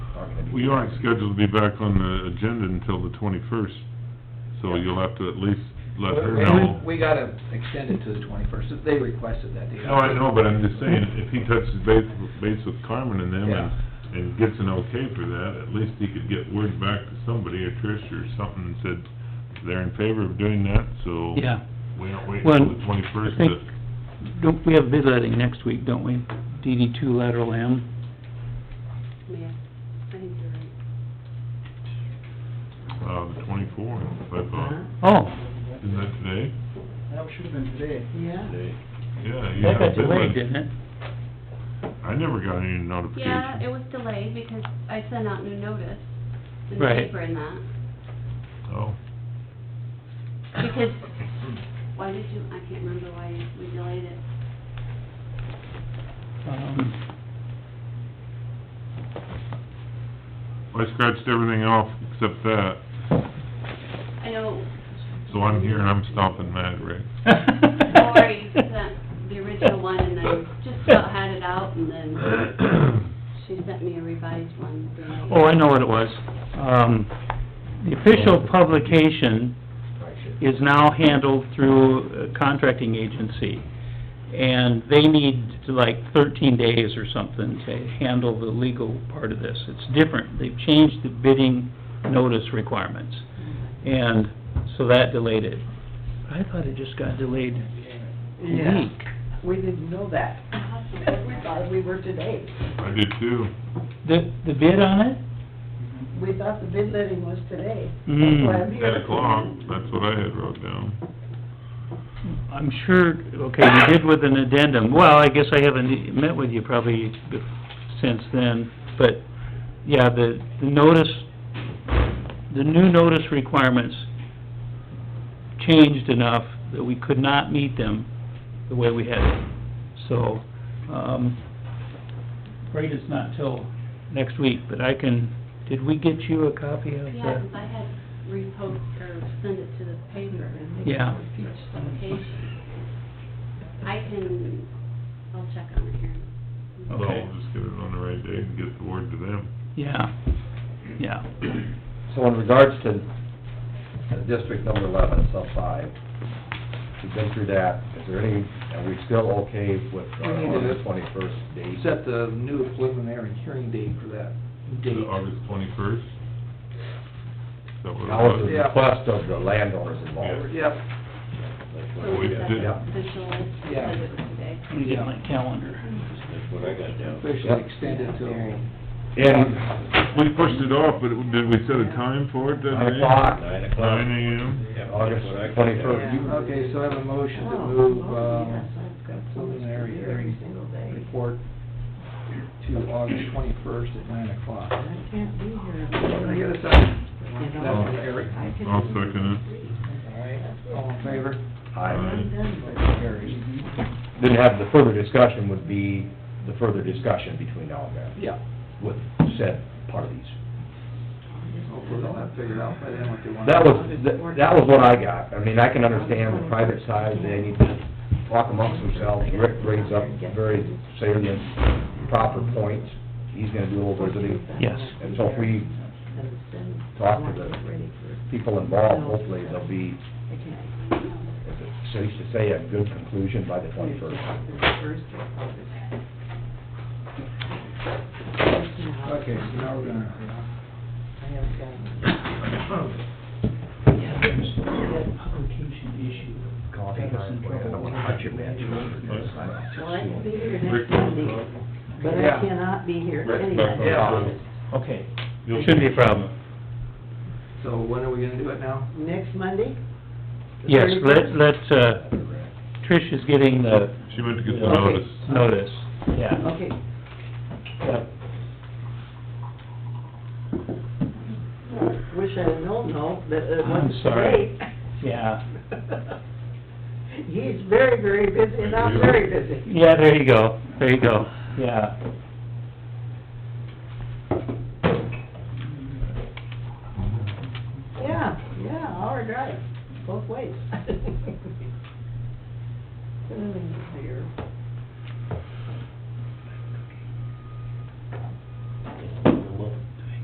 We aren't scheduled to be back on the agenda until the twenty-first, so you'll have to at least let her We- know. We gotta extend it to the twenty-first, they requested that. No, I know, but I'm just saying, if he touches base, base with Carmen and them and, and gets an okay for that, at least he could get word back to somebody, or Trish or something, and said they're in favor of doing that, so. Yeah, We don't wait Well, until the twenty-first to, I think, don't, we have bid letting next week, don't we? DD two lateral M, Yeah, I think you're right. uh, the twenty-fourth, I thought. Uh-huh. oh, Isn't that today? That should've been today. Yeah. Yeah, you that had a got bid delayed, list. didn't it? I never got any notification. Yeah, it was delayed because I sent out new notice in the Right. paper and that. Oh. Because, why did you, I can't remember why we delayed it. Um, I scratched everything off except that, I know, so I'm here and I'm stomping mad, Rick. Lori sent the original one and then just about had it out and then she sent me a revised one. the night- Oh, I know what it was. Um, the official publication is now handled through a contracting agency, and they need to, like thirteen days or something to handle the legal part of this. It's different, they've changed the bidding notice requirements, and so that delayed it. I thought it just got delayed a Yeah, week. we didn't know that. We thought we were today. I did too. The, the bid on it? We thought the bid letting was today. Mm. That's why I'm here. Ten o'clock, that's what I had wrote down. I'm sure, okay, you did with an addendum, well, I guess I haven't met with you probably be- since then, but, yeah, the, the notice, the new notice requirements changed enough that we could not meet them the way we had it, so, um, afraid it's not till next week, but I can, did we get you a copy of the? Yeah, 'cause I had repost or send it to the paper and they Yeah. got a huge publication. I can, I'll check on it here. So Okay. I'll just get it on the right day and get the word to them. Yeah, yeah, So in regards to uh, District Number Eleven, Sub Five, we've been through that. Is there any, are we still okay with uh, We need to- the twenty-first date? Set the new preliminary hearing date for that Is date. it August twenty-first? That what it That was was? the Yeah. request of the landowners involved. Yep, So We is that did. Official, Yeah. because it was today. let me get my calendar. officially extended till And We pushed it off, but it- did we set a time for it that nine day? o'clock, Nine Nine o'clock. AM? August twenty-first. Yeah. Okay, so I have a motion to Oh, move, oh, yes, um, I've got so much to preliminary do every hearing single day. report to August twenty-first at nine o'clock. I can't be here. Can I get a second? You know, That's from Eric. I can- I'll second All right, all in favor? I I'm done, but- Carries. didn't have, the further discussion would be the further discussion between now and then Yeah, with said parties. hopefully they'll have figured out by then what they want. That was, that was what I got. I mean, I can understand the private side, they need to talk amongst themselves. Rick brings up very salient, proper points. He's gonna do a little visiting. Yes. And so if we talk to the people involved, hopefully there'll be, as it safe to say, a good conclusion by the twenty-first. Okay, so now we're gonna, Publication Coffee time, boy, I don't wanna touch your man. Well, I can be here it. Rick, next Monday, but I Yeah. cannot be here Rick, anyway. Yeah. Okay, You'll- shouldn't be a problem. so when are we gonna do it now? Next Monday? The Yes, 31st? let, let, uh, Trish is getting the She went to get the Okay. notice. notice, yeah. Okay, wish I'd have known, no, that it I'm was sorry. today. Yeah, He's very, very busy, and I'm very busy. yeah, there you go, there you go, yeah. Yeah, yeah, hour drive, both ways. Hmm, here.